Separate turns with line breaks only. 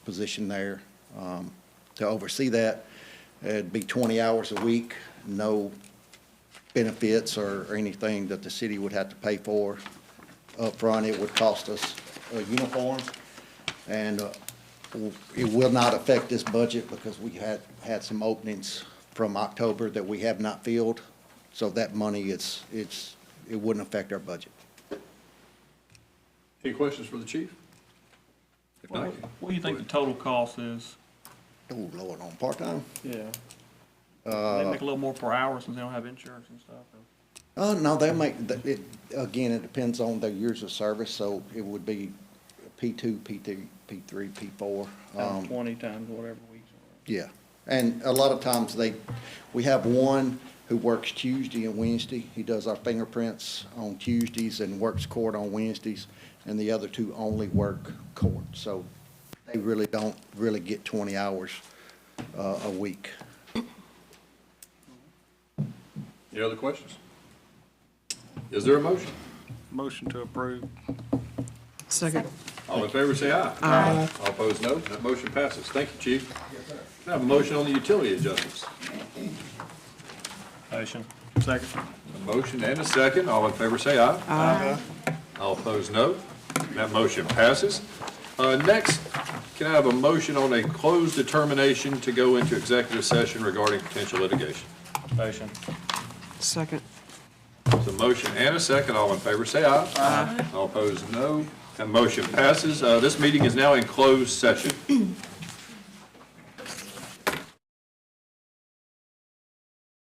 position there um, to oversee that. It'd be 20 hours a week, no benefits or or anything that the city would have to pay for upfront. It would cost us a uniform, and uh, w- it will not affect this budget because we had, had some openings from October that we have not filled. So that money, it's, it's, it wouldn't affect our budget.
Any questions for the chief? If
Well,
not,
What what do you think the total cost is?
Oh, Lord, on part-time?
Yeah. They make a little more per hour since they don't have insurance and stuff. though.
Uh, no, they make, th- it, again, it depends on their years of service, so it would be P two, P two, P three, P four. um,
Times Twenty times whatever weeks. are.
Yeah, and a lot of times they, we have one who works Tuesday and Wednesday. He does our fingerprints on Tuesdays and works court on Wednesdays, and the other two only work court. So they really don't really get twenty hours, uh, a week.
Any other questions? Is there a motion?
Motion to approve.
Second.
All in favor, say aye. Aye. All opposed, no. That motion passes. Thank you, chief. Can I have a motion on the utility adjustments?
Motion. Second.
A motion and a second. All in favor, say aye. Aye. All opposed, no. That motion passes. Uh, next, can I have a motion on a closed determination to go into executive session regarding potential litigation?
Motion.
Second.
There's a motion and a second. All in favor, say aye. Aye. All opposed, no. That motion passes. Uh, This meeting is now in closed session.